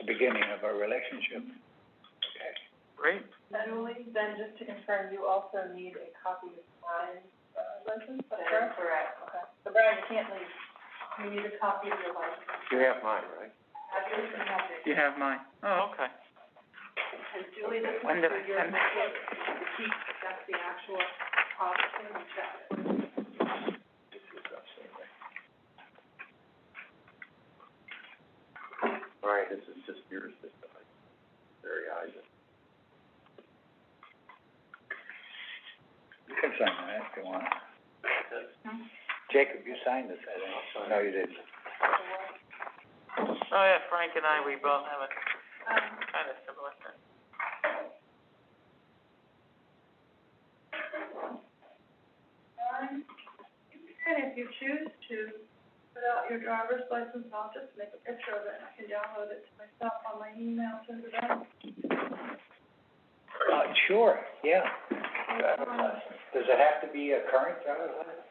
the beginning of our relationship. Okay. Great. Emily, then just to confirm, you also need a copy of Brian's, uh, license, is that correct? Okay, so Brian, you can't leave, you need a copy of your license. You have mine, right? Have you, you have it. You have mine. Oh, okay. And Julie, this is When did I for your, send the heat, that's the actual processing of that. All right, this is just yours, this time. Very eyes. You can sign that if you want. Jacob, you signed this, I think. No, you didn't. Oh, yeah, Frank and I, we both have a Um, kind of similar thing. And if um, you choose to put out your driver's license, I'll just make a picture of it, and I can download it to myself on my email, send it out. Uh, sure, yeah. Driver's license. Does it have to be a current driver's license?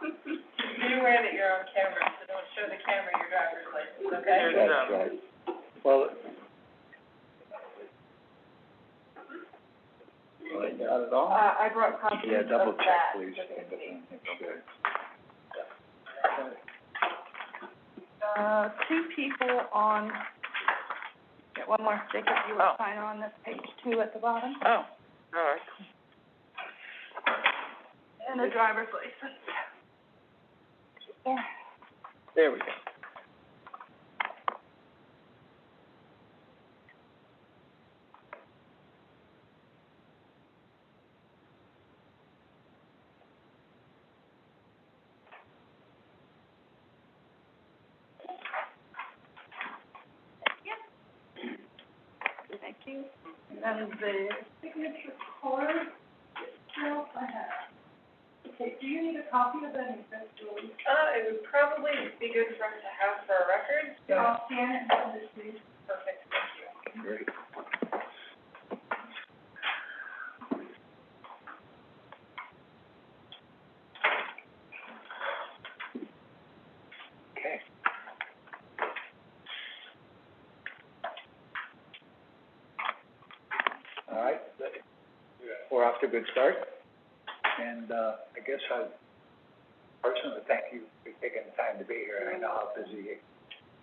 Be aware that you're on camera, so don't show the camera your driver's license, There's, That's um, right. Well. Not at all. Uh, I brought copies Yeah, of that. double check, please. just in case. Okay. Uh, two people on, get one more, Jacob, you Oh. will sign on this page two at the bottom, oh, all right. and a driver's license. Yeah. There we go. Thank you. And then the signature card itself I have. Okay, do you need a copy of that, Julie? Uh, it would probably be good for us to have for a record. Yeah. I'll scan it and send it to you. Perfect, thank you. Great. Okay. All right, that- we're off to a good start, and, uh, I guess I personally thank you for taking the time to be here, I know how busy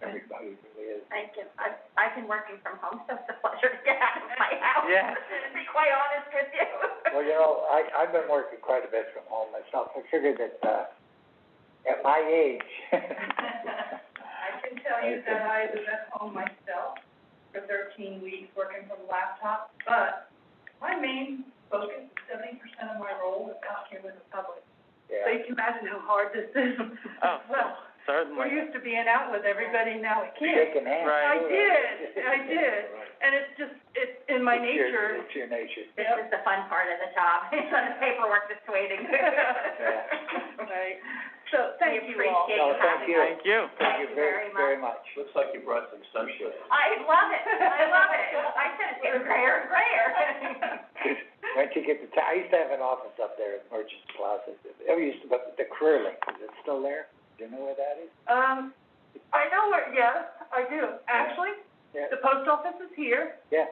everybody really is. I can, I've, I've been working from home, so it's a pleasure to get out of my house. Yeah. To be quite honest with you. Well, you know, I, I've been working quite a bit from home myself. I figured that, uh, at my age. I can tell you that I was at home myself for thirteen weeks working from a laptop, but my main focus, seventy percent of my role was out here with the public. So Yeah, you can imagine how hard this is. Oh. Well, we're Certainly. used to being out with everybody, now we can't. shaking hands. Right. I did, I did, and it's just, it's in my It's your- nature. It's your nature. This is the fun part of the job, it's the paperwork that's waiting. Right, so thank you all. appreciate No, you thank having you. us. Thank you. Thank you very Very much. Looks like you brought some sunshine. I love it, I love it. I said it's getting grayer and grayer. Once you get to town, I used to have an office up there at Merchants Plaza. I used to, but the career link, is it still there? Do you know where that is? Um, I know where, yes, I do, actually, Yeah, the post office is here. yeah,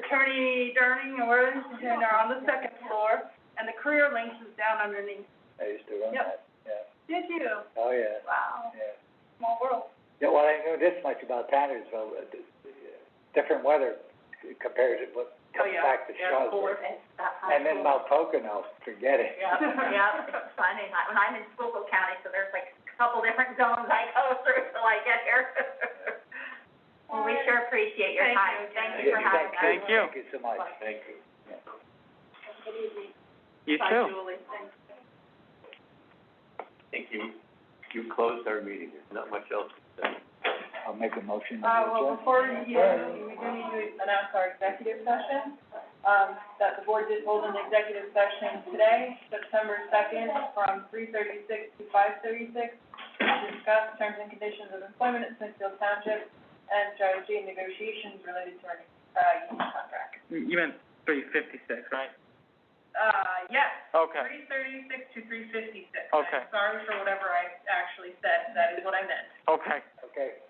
Attorney Durning and Worthington are on the second floor, and the career links is down underneath. I used to run Yep. that, yeah. Did you? Oh, yeah, Wow, yeah. small world. Yeah, well, I know this much about Tannersville, uh, the- the, uh, different weather compared to what Oh, comes yeah. back to Yeah, Charlotte. of course. It's that high And then school. Mount Pocono, forget it. Yep, yep, it's funny, I- when I'm in Schuylkill County, so there's like a couple different zones I go through till I get here. Well, we sure appreciate your Thank time, you. thank you for Yeah, having us. Thank you. Thank you so much. Thank you. You Bye, too. Julie, thanks. I think you, you closed our meeting. There's not much else to say. I'll make a motion. to Uh, well, adjourn. before we, uh, we do need to announce our executive session, um, that the board did hold an executive session today, September second, from three thirty-six to five thirty-six, to discuss terms and conditions of employment at Smithfield Township, and strategy and negotiations related to our, uh, union contract. You meant three fifty-six, right? Uh, yes, Okay, three thirty-six to three fifty-six. Okay. Sorry for whatever I actually said, that is what I meant. okay. Okay.